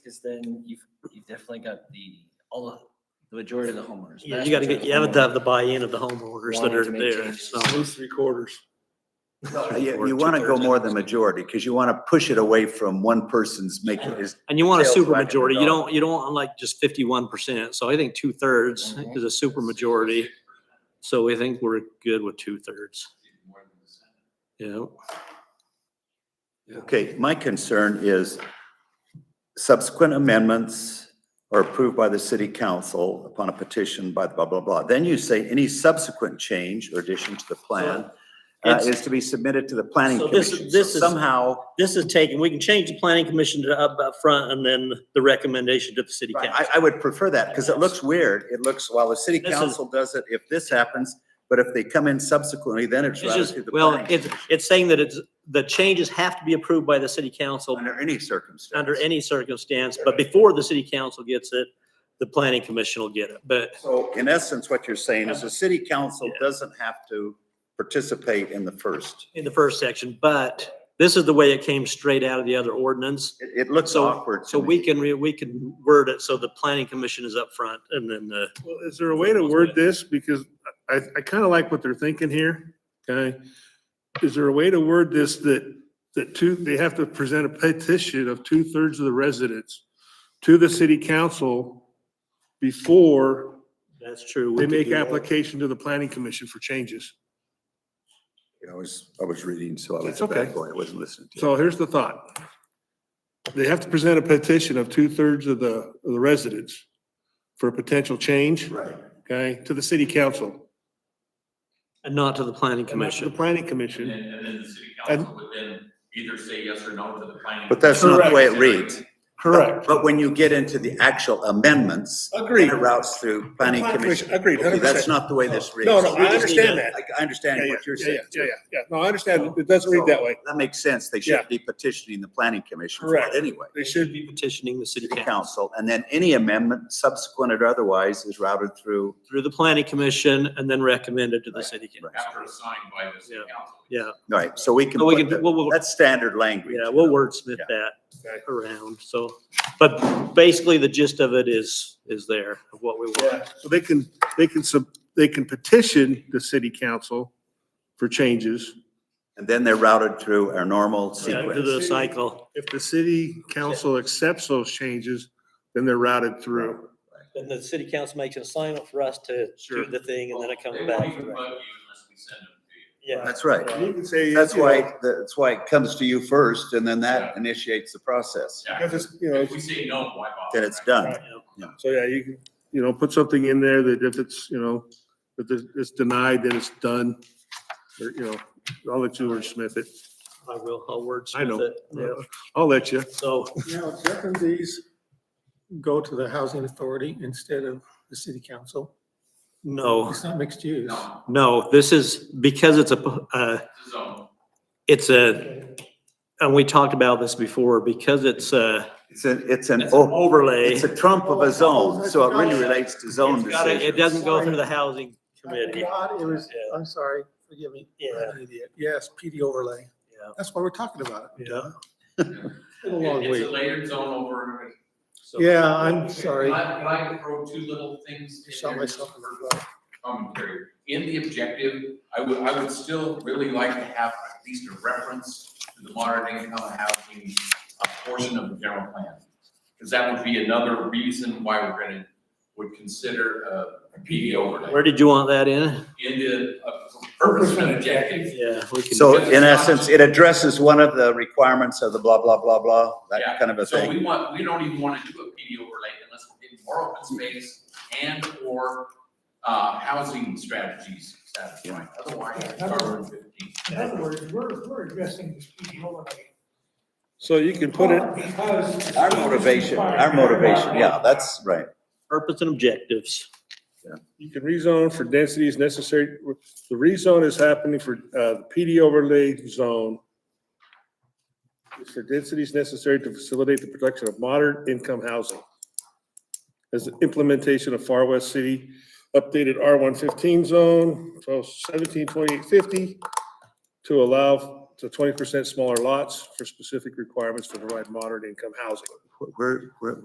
because then you've, you've definitely got the, all the, the majority of the homeowners. Yeah, vast you gotta get, majority you of have to have the buy-in of the homeowners that Wanting are to make there, changes. so. At least three quarters. homeowners. You, you want to go more than majority because you want to push it away from one person's making his. And you want a Sales super wagon majority, you dog. don't, you don't want like just fifty-one percent, so I think two-thirds Mhm. is a super majority. So we think we're good with two-thirds. Yeah, Okay, my concern is subsequent amendments are approved by the city council upon a petition by the blah, blah, blah. Then you say any subsequent change or addition to the plan uh, It's- is to be submitted to the planning So this is- commission. So this is- somehow, this is taken, we can change the planning commission to up, up front and then the recommendation to the city Right, council. I, I would prefer that because it looks weird. It looks, while the city This is- council does it, if this happens, but if they come in subsequently, then it's It's routed just, through the well, planning it's, it's saying that it's, the changes have to be approved by the city council under any circumstance. under any circumstance, but before the city council gets it, the planning commission will get it, but So in essence, what you're saying is the city council Yeah. doesn't have to participate in the first. in the first section, but this is the way it came straight out of the other ordinance. It, it looks So- awkward So to we me. can, re- we can word it so the planning commission is up front and then the, Well, is there a way to word this? Because I, I kind of like what they're thinking here, okay? Is there a way to word this that, that two, they have to present a petition of two-thirds of the residents to the city council before that's true. we they could make do that. application to the planning commission for changes? I was, I was reading, so I was That's a bad okay. boy. I wasn't listening to you. So here's the thought. They have to present a petition of two-thirds of the, of the residents for a potential change, Right. okay, to the city council. And not to the planning and not to commission. The planning And commission. then, and then the city council would then either say yes or no to the planning. But that's not the way it commission. reads. But when you get into the actual amendments. Agreed. then It routes through planning Planning commission, commission. agreed, Okay, That's 100%. not the way this reads. No, no, I just understand need that. I, I understand Yeah, yeah, what you're yeah, saying. Yeah, yeah, yeah. No, I understand. It doesn't read that way. That makes sense. They Yeah. should be petitioning the planning commission for it Correct. anyway. They should be. be petitioning the city City council council, and then any amendment subsequent or otherwise is routed through. through the planning commission and then recommended to the city council. Right. After assigned by the city council. Yeah, All right, so we can, Well, we put can- we'll- the- we'll- that's standard language. yeah, we'll wordsmith Yeah. that Okay. around, so, but basically the gist of it is, is there, of what we want. Yeah. So they can, they can sub, they can petition the city council for changes. And then they're routed through our normal Yeah, To sequence. the cycle, If the city council accepts those changes, then they're routed through. and the city council makes an assignment for us to do Sure. the thing, and then it comes They won't back. even bug you unless we send them to you. Yeah, That's right. You can say. That's you know, why, that's why it comes to you first, and then that initiates the process. Yeah. Because it's, you know, If we say no, why bother? Then it's right? done. so yeah, you can, you know, put something in there that if it's, you know, if it's- it's denied, then it's done. Or, you know, I'll let you wordsmith it. I will, I'll I know. wordsmith it, yeah, I'll let you. so. Now, doesn't these go to the housing authority instead of the city council? No, It's not mixed use. No, no, this is, because it's a, uh, it's a zone. it's a, and we talked about this before, because it's a It's an, it's an, it's an oh, overlay. it's a trump of a zone, so it really relates to zone it's gotta- decisions. It doesn't go through the housing committee. God, it was, Yeah. I'm sorry, forgive me. Yeah. I'm an idiot. Yes, PD overlay. Yeah. That's why we're talking about it. Yeah. It's been a long It- It's week. a layered zone over. so- Yeah, I'm sorry. Can I, can I throw two little things? in Shot there just myself in for- the foot. commentary. In the objective, I would, I would still really like to have at least a reference to the modern income housing uh, portion of the general plan. Because that would be another reason why we're gonna, would consider uh, a PD overlay Where did you want that in? in the uh, purpose and objective. Yeah. we can- So in essence, it addresses one of the requirements of the blah, blah, blah, blah, that Yeah. kind of a So we thing. want, we don't even want to do a PD overlay unless we're getting more open space and or uh, housing strategies. satisfied. Otherwise, it's carbon fifteen. In other words, we're, we're addressing this PD overlay. So you can put it, Because- Our motivation, our motivation, yeah, that's right. Purpose and objectives. you can rezone for densities necessary. The rezone is happening for, uh, the PD overlay zone. It's for densities necessary to facilitate the production of modern income housing. As the implementation of Far West City updated R one fifteen zone, so seventeen twenty-eight fifty to allow to twenty percent smaller lots for specific requirements to provide modern income housing. We're, we're,